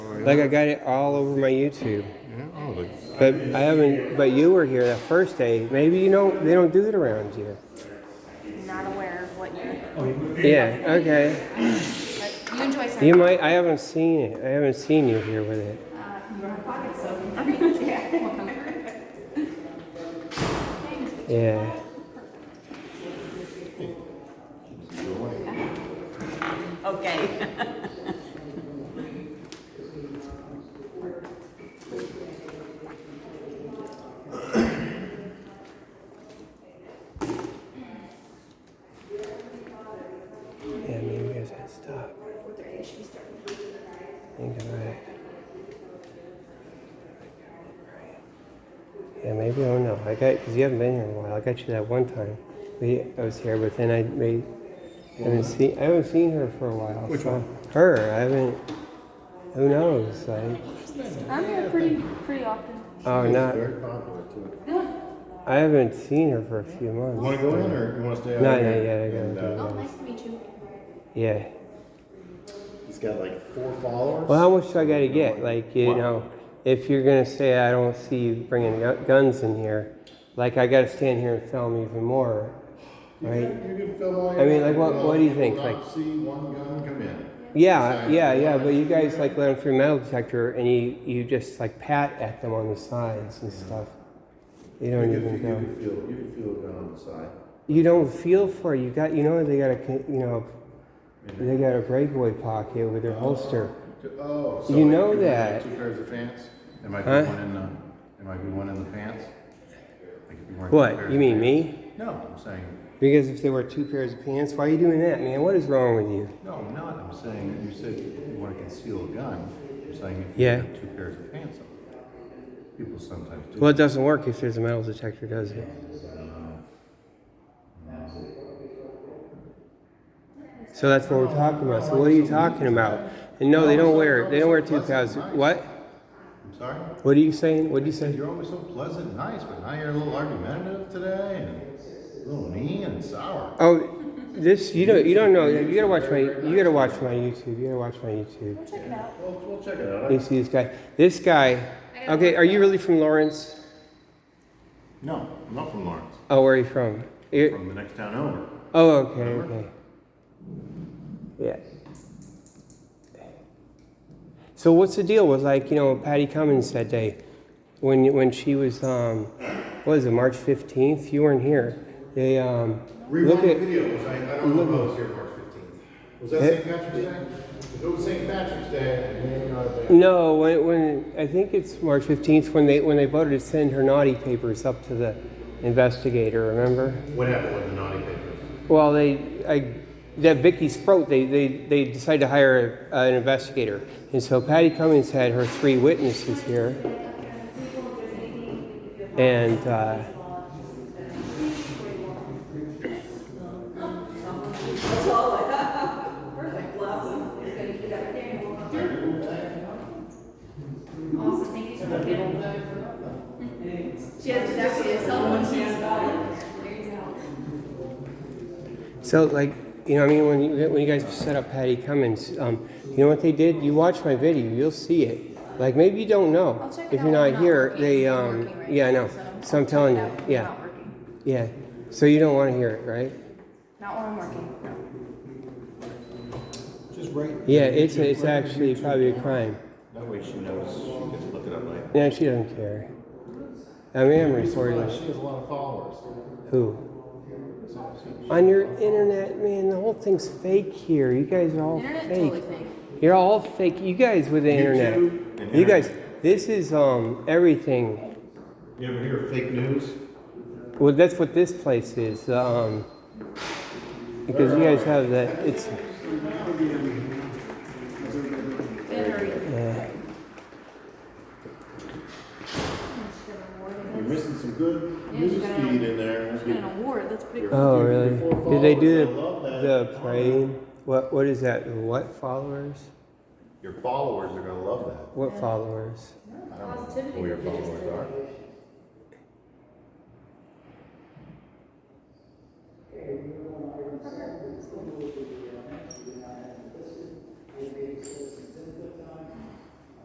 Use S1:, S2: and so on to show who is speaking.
S1: Like I got it all over my YouTube.
S2: Yeah, oh, like,
S1: But I haven't. But you were here that first day. Maybe you don't. They don't do it around here.
S3: Not aware of what you're.
S1: Yeah. Okay.
S3: But you enjoy
S1: You
S3: some.
S1: might. I haven't seen it. I haven't seen you here with it. Yeah.
S4: Okay.
S1: Yeah. Maybe I should stop. Think about it. Yeah. Maybe I don't know. I got because you haven't been here in a while. I got you that one time. We. I was here, but then I made. I haven't seen. I haven't seen her for a while.
S2: Which
S1: so-
S2: one?
S1: Her. I haven't. Who knows? Like.
S3: I'm here pretty, pretty often.
S1: Oh, not.
S2: very popular too.
S1: I haven't seen her for a few months.
S2: You want to go in or you want to stay out
S1: No, yeah,
S2: here?
S1: yeah, I gotta
S2: And,
S1: go.
S2: uh,
S3: Oh, nice to meet you.
S1: Yeah.
S2: He's got like four followers.
S1: Well, how much do I gotta get? Like, you
S2: Wow.
S1: know, if you're gonna say I don't see you bringing gu- guns in here, like I gotta stand here and film even more,
S2: you
S1: right?
S2: Can, you can film all
S1: I mean,
S2: your-
S1: like, what-
S2: well,
S1: what do you
S2: will
S1: think,
S2: not
S1: like-
S2: see one gun come in.
S1: Yeah,
S2: Besides-
S1: yeah, yeah. But you guys like let them through metal detector, and you you just like pat at them on the sides and stuff. You
S2: You
S1: don't
S2: can, you,
S1: even go.
S2: can feel, you can feel a gun on the side.
S1: You don't feel for it. You got you know they got a con- you know they got a breakaway pocket with their holster.
S2: Oh, so
S1: You
S2: I
S1: know
S2: could wear,
S1: that.
S2: like, Two pairs of pants. There might
S1: Huh?
S2: be one in the. There might be one in the pants. Like if you weren't
S1: What you mean me?
S2: No, I'm saying
S1: Because if they wear two pairs of pants, why are you doing that, man? What is wrong with you?
S2: no. I'm not. I'm saying you said you want to conceal a gun. I'm saying if
S1: Yeah.
S2: you have two pairs of pants on. People sometimes do.
S1: Well, it doesn't work if there's a metal detector, does it? So that's what we're talking about. So what are you talking about? And no, they don't wear they don't wear two pairs. What?
S2: I'm sorry.
S1: What are you saying? What do you say?
S2: You're always so pleasant, and nice, but now you're a little argumentative today, and a little mean and sour.
S1: Oh, this you don't you don't know. You gotta watch my you gotta watch my YouTube. You gotta watch my YouTube.
S3: Check it out.
S2: We'll, we'll check it out.
S1: You see this guy? This guy. Okay, are you really from Lawrence?
S2: No, I'm not from Lawrence.
S1: Oh, where are you from? You're-
S2: From the next town over.
S1: Oh, okay, okay. Yeah. So what's the deal with like you know Patty Cummins that day, when when she was um, what is it March fifteenth? You weren't here. They um, look
S2: Rewind the
S1: at
S2: video, was I, I don't know if I was here March fifteenth. Was that
S1: Eh?
S2: St. Patrick's Day? If it was St. Patrick's Day, I may not have been.
S1: no when, when I think it's March fifteenth when they when they voted to send her naughty papers up to the investigator. Remember?
S2: What happened with the naughty papers?
S1: Well, they, I, that Vicky Sproat, they, they, they decided to hire a, an investigator. And so Patty Cummings had her three witnesses here. And, uh,
S3: Awesome. Thank you so much. She has deducted someone she's
S1: so like, you know, I mean, when you, when you guys set up Patty Cummings, um, you know what they did? You watch my video, you'll see it. Like maybe you don't know
S3: I'll check it
S1: if
S3: out
S1: you're
S3: when
S1: not
S3: I'm
S1: here.
S3: working.
S1: They,
S3: I'm
S1: um,
S3: working right
S1: yeah, I
S3: now,
S1: know.
S3: so
S1: So I'm
S3: I'll check
S1: telling
S3: it
S1: you,
S3: out when I'm
S1: yeah,
S3: Not working.
S1: yeah. So you don't want to hear it, right?
S3: Not when I'm working, no.
S2: Just right.
S1: Yeah, it's it's actually probably a crime.
S2: That way she knows, she gets looked up later.
S1: No, she doesn't care. I mean, I'm recording.
S2: She has a lot of followers.
S1: Who? On your internet, man, the whole thing's fake here. You guys are all
S3: Internet
S1: fake.
S3: totally fake.
S1: You're all fake. You guys with the internet.
S2: YouTube and
S1: You
S2: internet.
S1: guys, this is um everything.
S2: You ever hear of fake news?
S1: Well, that's what this place is. Um, because you guys have that. It's
S3: Very.
S1: yeah.
S2: You're missing some good news
S3: got-
S2: feed in there.
S3: She got an award, that's pretty cool.
S1: Oh, really? Did they do
S2: I love that.
S1: the the praying? What what is that? What followers?
S2: Your followers are gonna love that.
S3: Uh,
S1: What followers?
S2: I don't know who your followers are.